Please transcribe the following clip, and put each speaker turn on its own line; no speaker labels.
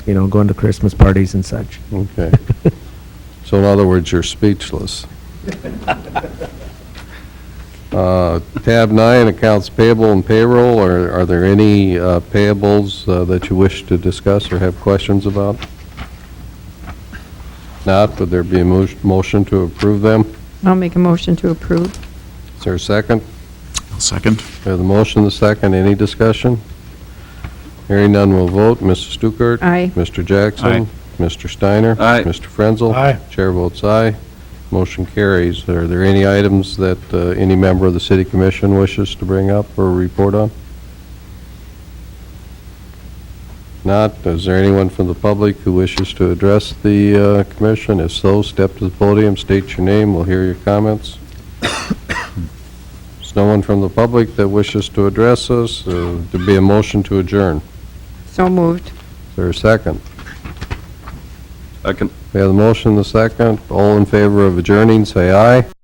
you know, going to Christmas parties and such.
Okay. So in other words, you're speechless. Uh, Tab nine, accounts payable and payroll, are are there any uh, payables uh, that you wish to discuss or have questions about? Not, would there be a mo- motion to approve them?
I'll make a motion to approve.
Is there a second?
Second?
We have the motion, the second, any discussion? Hearing none, we'll vote. Mrs. Stuckert?
Aye.
Mr. Jackson?
Aye.
Mr. Steiner?
Aye.
Mr. Frenzel?
Aye.
Chair votes aye. Motion carries. Are there any items that uh, any member of the city commission wishes to bring up or report on? Not. Is there anyone from the public who wishes to address the uh, commission? If so, step to the podium, state your name, we'll hear your comments. There's no one from the public that wishes to address us. uh, There'd be a motion to adjourn.
So moved.
Is there a second?
Second.
We have the motion, the second. All in favor of adjourning, say aye.